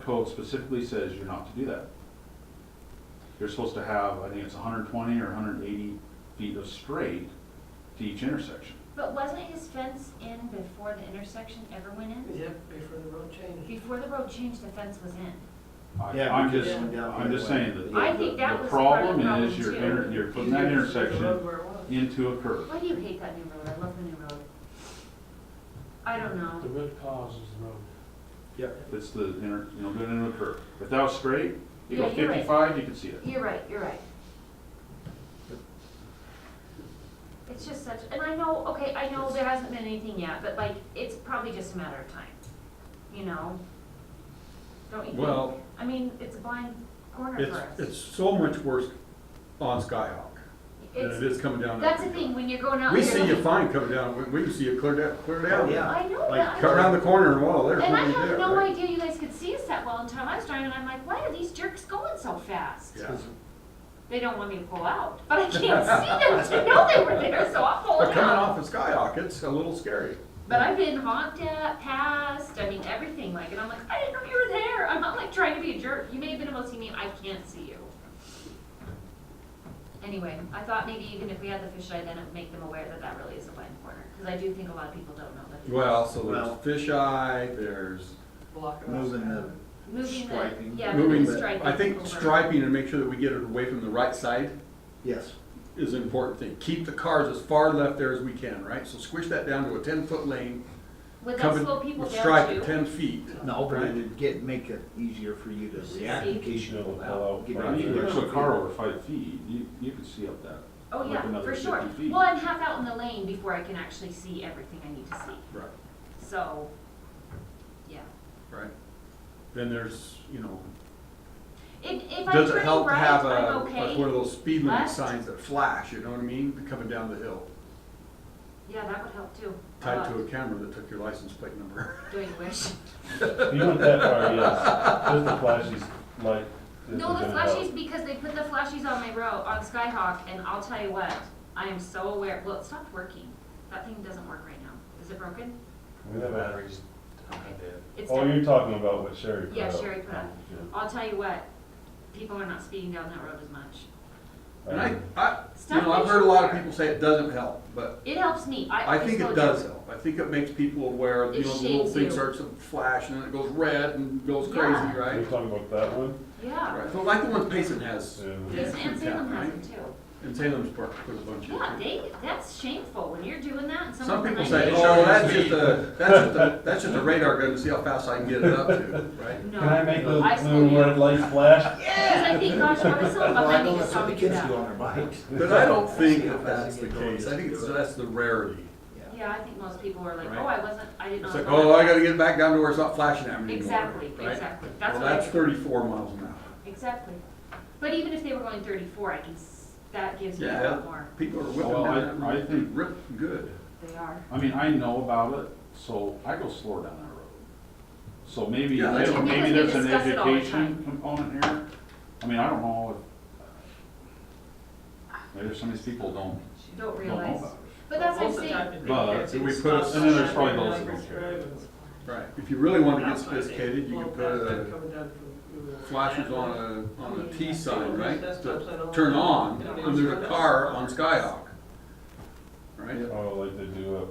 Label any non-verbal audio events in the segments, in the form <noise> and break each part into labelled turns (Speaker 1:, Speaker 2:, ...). Speaker 1: code specifically says you're not to do that. You're supposed to have, I think it's hundred and twenty or hundred and eighty feet of straight to each intersection.
Speaker 2: But wasn't his fence in before the intersection ever went in?
Speaker 3: Yep, before the road change.
Speaker 2: Before the road changed, the fence was in.
Speaker 1: I-
Speaker 4: Yeah,
Speaker 1: I'm
Speaker 4: because
Speaker 1: just,
Speaker 4: it went down
Speaker 1: I'm just
Speaker 4: the other
Speaker 1: saying that.
Speaker 4: way.
Speaker 1: the-
Speaker 2: I think
Speaker 1: the-
Speaker 2: that
Speaker 1: the
Speaker 2: was part of the
Speaker 1: is
Speaker 2: problem,
Speaker 1: you're,
Speaker 2: too.
Speaker 1: inter- you're putting
Speaker 3: You
Speaker 1: that
Speaker 3: could just leave the road
Speaker 1: intersection
Speaker 3: where it was.
Speaker 1: into a curve.
Speaker 2: Why do you hate that new road? I love the new road. I don't
Speaker 5: The
Speaker 2: know.
Speaker 5: root cause is the road.
Speaker 1: It's the inner, you know, going into a curve. If that was straight, you go
Speaker 2: Yeah, you're right.
Speaker 1: fifty-five, you can see it.
Speaker 2: You're right, you're right. It's just such, and I know, okay, I know there hasn't been anything yet, but like, it's probably just a matter of time, you know? Don't you think?
Speaker 6: Well-
Speaker 2: I mean, it's a blind corner
Speaker 6: It's,
Speaker 2: for us.
Speaker 6: it's so much worse on Skyhawk than it
Speaker 2: It's-
Speaker 6: is coming down.
Speaker 2: That's the
Speaker 6: Elm.
Speaker 2: thing, when you're going out.
Speaker 6: We
Speaker 2: and you're
Speaker 6: see you
Speaker 2: looking-
Speaker 6: fine coming down, we, we can see you clear down, clear
Speaker 4: Oh,
Speaker 6: down.
Speaker 4: yeah.
Speaker 2: I know, but
Speaker 6: Like,
Speaker 2: I
Speaker 6: cut around the corner and well, there's
Speaker 2: And I
Speaker 6: nobody
Speaker 2: have
Speaker 6: there,
Speaker 2: no
Speaker 6: right?
Speaker 2: idea you guys could see us that well until I was driving, I'm like, why are these jerks going so fast?
Speaker 6: Yeah.
Speaker 2: They don't want me to pull out, but
Speaker 6: <laughs>
Speaker 2: I can't see them <laughs> to know they were there, so I'm
Speaker 6: But
Speaker 2: pulling
Speaker 6: coming
Speaker 2: out.
Speaker 6: off of Skyhawk, it's a little scary.
Speaker 2: But I've been honked at, passed, I mean, everything like, and I'm like, I didn't know you were there, I'm not like trying to be a jerk, you may have been able to see me, I can't see you. Anyway, I thought maybe even if we had the fisheye, then it'd make them aware that that really is a blind corner, cause I do think a lot of people don't know that. it is.
Speaker 6: Well, so
Speaker 4: Well-
Speaker 6: there's fisheye, there's
Speaker 3: Block it off.
Speaker 4: Moving the,
Speaker 2: Moving the,
Speaker 4: Striping.
Speaker 2: yeah, moving
Speaker 6: moving,
Speaker 2: the
Speaker 6: but
Speaker 2: striping.
Speaker 6: I think
Speaker 2: over.
Speaker 6: striping and make sure that we get it away from the right side
Speaker 4: yes,
Speaker 6: is an important thing. Keep the cars as far left there as we can, right? So squish that down to a ten-foot lane.
Speaker 2: Would that
Speaker 6: coming-
Speaker 2: slow people
Speaker 6: with Stripe
Speaker 2: down
Speaker 6: at
Speaker 2: too?
Speaker 6: ten feet.
Speaker 4: no, but it'd get, make it easier for you to react in case you pull out. Get
Speaker 1: Right,
Speaker 4: out
Speaker 1: you
Speaker 4: there.
Speaker 1: push a car over five feet, you, you can see up that.
Speaker 2: Oh,
Speaker 1: like
Speaker 2: yeah,
Speaker 1: another
Speaker 2: for sure.
Speaker 1: 50 feet.
Speaker 2: Well, I'm half out in the lane before I can actually see everything I need to see,
Speaker 6: Right,
Speaker 2: so, yeah.
Speaker 6: right. Then there's, you know,
Speaker 2: If, if I
Speaker 6: does it
Speaker 2: turn
Speaker 6: help to
Speaker 2: right,
Speaker 6: have
Speaker 2: I'm
Speaker 6: a, like one of
Speaker 2: okay.
Speaker 6: those speed limit
Speaker 2: Left.
Speaker 6: signs that flash, you know what I mean, coming down the hill?
Speaker 2: Yeah, that would help too.
Speaker 6: Tied to
Speaker 2: Uh,
Speaker 6: a camera that took your license plate number.
Speaker 2: Doing a wish.
Speaker 7: You went that far, yes. Just the flashies, light. that
Speaker 2: No,
Speaker 7: they're
Speaker 2: the
Speaker 7: gonna have.
Speaker 2: flashies, because they put the flashies on my road, on Skyhawk, and I'll tell you what, I am so aware, well, it stopped working. That thing doesn't work right now. Is it broken?
Speaker 7: <laughs> We have a-
Speaker 2: It's
Speaker 7: Oh,
Speaker 2: done.
Speaker 7: you're talking about what Sherry put
Speaker 2: Yeah,
Speaker 7: up.
Speaker 2: Sherry put up. I'll tell you what, people are not speeding down that road as much.
Speaker 6: And I, I, you
Speaker 2: Stop
Speaker 6: know, I've
Speaker 2: it.
Speaker 6: heard a lot of people say it doesn't help, but
Speaker 2: It helps me. I,
Speaker 6: I think
Speaker 2: slow
Speaker 6: it
Speaker 2: down.
Speaker 6: does help. I think it makes people aware, of, you
Speaker 2: It
Speaker 6: know, the little
Speaker 2: shades
Speaker 6: thing
Speaker 2: you.
Speaker 6: starts to flash and then it goes red and goes crazy,
Speaker 2: Yeah.
Speaker 7: Are you
Speaker 6: right?
Speaker 7: talking about that one?
Speaker 2: Yeah.
Speaker 6: Right, so like the one Payson has.
Speaker 7: Yeah.
Speaker 2: Yes, and Salem has
Speaker 6: Right?
Speaker 2: them too.
Speaker 6: And Salem's part, put a bunch in.
Speaker 2: Yeah, they, that's shameful when you're doing that and
Speaker 6: Some
Speaker 2: someone.
Speaker 6: people
Speaker 2: behind
Speaker 6: say,
Speaker 2: you-
Speaker 6: oh, that's just a, that's just a, that's just a radar gun to see how fast I can get it up to, right?
Speaker 7: Can I make
Speaker 2: No,
Speaker 7: those
Speaker 2: I slow
Speaker 7: blue red
Speaker 2: down.
Speaker 7: lights flash?
Speaker 2: Because I think, gosh, what is someone
Speaker 4: Well, I
Speaker 2: behind
Speaker 4: know
Speaker 2: me just
Speaker 4: that's what the
Speaker 2: talking to
Speaker 4: kids do
Speaker 2: that?
Speaker 4: on their bikes.
Speaker 6: <laughs> But I don't think that that's the case, I think it's, that's the rarity.
Speaker 4: Yeah.
Speaker 2: Yeah, I think most people are like,
Speaker 6: Right.
Speaker 2: oh, I wasn't, I didn't know.
Speaker 6: It's like,
Speaker 2: someone-
Speaker 6: oh, I gotta get back down to where it's not flashing at me anymore.
Speaker 2: Exactly,
Speaker 6: right?
Speaker 2: exactly. That's
Speaker 6: Well,
Speaker 2: what I
Speaker 6: that's
Speaker 2: do.
Speaker 6: thirty-four miles an hour.
Speaker 2: Exactly. But even if they were going thirty-four, I can, s- that gives me a
Speaker 6: Yeah,
Speaker 2: lot more.
Speaker 6: people are
Speaker 1: Well,
Speaker 6: whipping
Speaker 1: I-
Speaker 6: down that
Speaker 1: I
Speaker 6: road,
Speaker 1: think-
Speaker 6: rip, good.
Speaker 2: They are.
Speaker 1: I mean, I know about it, so I go slower down that road. So maybe,
Speaker 6: Yeah, that's what-
Speaker 1: maybe there's
Speaker 2: Because we
Speaker 1: an
Speaker 2: discuss it all the time.
Speaker 1: education component here. I mean, I don't know if, maybe some of these people don't,
Speaker 2: Don't
Speaker 1: don't know
Speaker 2: realize.
Speaker 1: about
Speaker 2: But that's what I'm
Speaker 3: Most of the time
Speaker 2: saying.
Speaker 3: it-
Speaker 1: But
Speaker 3: it's-
Speaker 6: we
Speaker 3: it's
Speaker 6: put
Speaker 3: not
Speaker 6: a-
Speaker 1: and then there's
Speaker 3: sunshine,
Speaker 1: probably
Speaker 3: it's
Speaker 1: those
Speaker 3: like
Speaker 1: that
Speaker 3: it's
Speaker 1: don't care.
Speaker 3: driving.
Speaker 6: Right, if you really wanted to get
Speaker 3: That's what I did.
Speaker 6: sophisticated, you
Speaker 3: Well,
Speaker 6: could
Speaker 3: that's
Speaker 6: put
Speaker 3: been
Speaker 6: uh,
Speaker 3: coming down from-
Speaker 6: flashers on a, on a T sign, right?
Speaker 3: That's
Speaker 6: to
Speaker 3: what I don't-
Speaker 6: Turn on,
Speaker 3: Yeah.
Speaker 6: under the car on Skyhawk. Right?
Speaker 7: Oh, like they do up,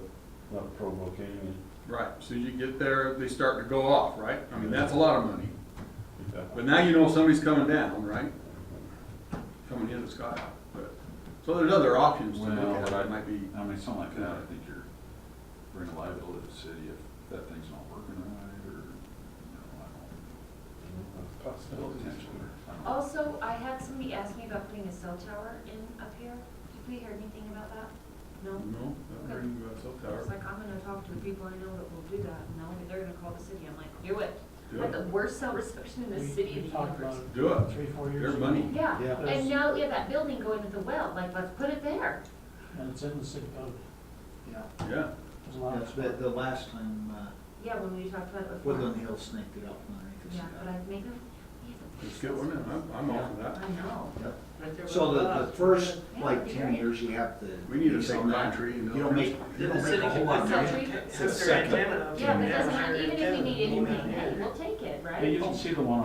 Speaker 7: not provoking.
Speaker 6: Right, so you get there, they start to go off, right? I mean, that's a lot of money.
Speaker 7: Yeah.
Speaker 6: But now you know somebody's coming down, right? Coming in the sky, but, so there's other options to
Speaker 1: Well,
Speaker 6: look at,
Speaker 1: but I-
Speaker 6: it might be,
Speaker 1: it. I mean, something like that, I think you're bringing liability to the city if that thing's not working right, or, you know, I don't,
Speaker 7: Possibilities.
Speaker 1: potentially, I don't know.
Speaker 2: Also, I had somebody ask me about putting a cell tower in up here. Did we hear anything about that? No?
Speaker 6: no, not really about cell
Speaker 2: I was
Speaker 6: tower.
Speaker 2: like, I'm gonna talk to the people I know that will do that, and now they're gonna call the city, I'm like, do it.
Speaker 6: Do
Speaker 2: I have
Speaker 6: it,
Speaker 2: the worst cell reception in the
Speaker 5: We-
Speaker 2: city
Speaker 5: we
Speaker 2: in the
Speaker 5: talked about
Speaker 2: universe.
Speaker 5: it
Speaker 6: do it.
Speaker 5: Three, four years
Speaker 6: Their
Speaker 5: ago.
Speaker 6: money.
Speaker 2: Yeah,
Speaker 4: Yeah.
Speaker 2: and now, yeah, that building going to the well, like, let's put it there.
Speaker 5: And it's in the city code.
Speaker 4: Yeah.
Speaker 6: Yeah,
Speaker 5: There's a lot
Speaker 4: That's the,
Speaker 5: of.
Speaker 4: the last time, uh,
Speaker 2: Yeah, when we talked about it before.
Speaker 4: Woodland Hill snaked it up underneath
Speaker 2: Yeah,
Speaker 4: us.
Speaker 2: but I maybe, yeah.
Speaker 6: let's get one in, I'm, I'm all for that.
Speaker 2: I know.
Speaker 3: Right there with
Speaker 4: So the, the
Speaker 3: lights.
Speaker 4: first, like, ten years, you have to.
Speaker 6: We need to
Speaker 4: lease
Speaker 6: take
Speaker 4: on that.
Speaker 6: my tree and
Speaker 4: You don't make, you
Speaker 3: Then
Speaker 4: don't
Speaker 3: the
Speaker 4: make
Speaker 3: city
Speaker 4: a whole
Speaker 3: can
Speaker 4: lot of
Speaker 3: put
Speaker 4: money.
Speaker 3: their-
Speaker 4: It's
Speaker 3: have
Speaker 4: the
Speaker 3: their
Speaker 4: second.
Speaker 3: antenna up.
Speaker 2: Yeah, but it
Speaker 3: Have
Speaker 2: doesn't
Speaker 3: their
Speaker 2: matter, even if we
Speaker 3: antenna.
Speaker 2: need anything, hey, we'll take it, right?
Speaker 1: Hey, you don't see the one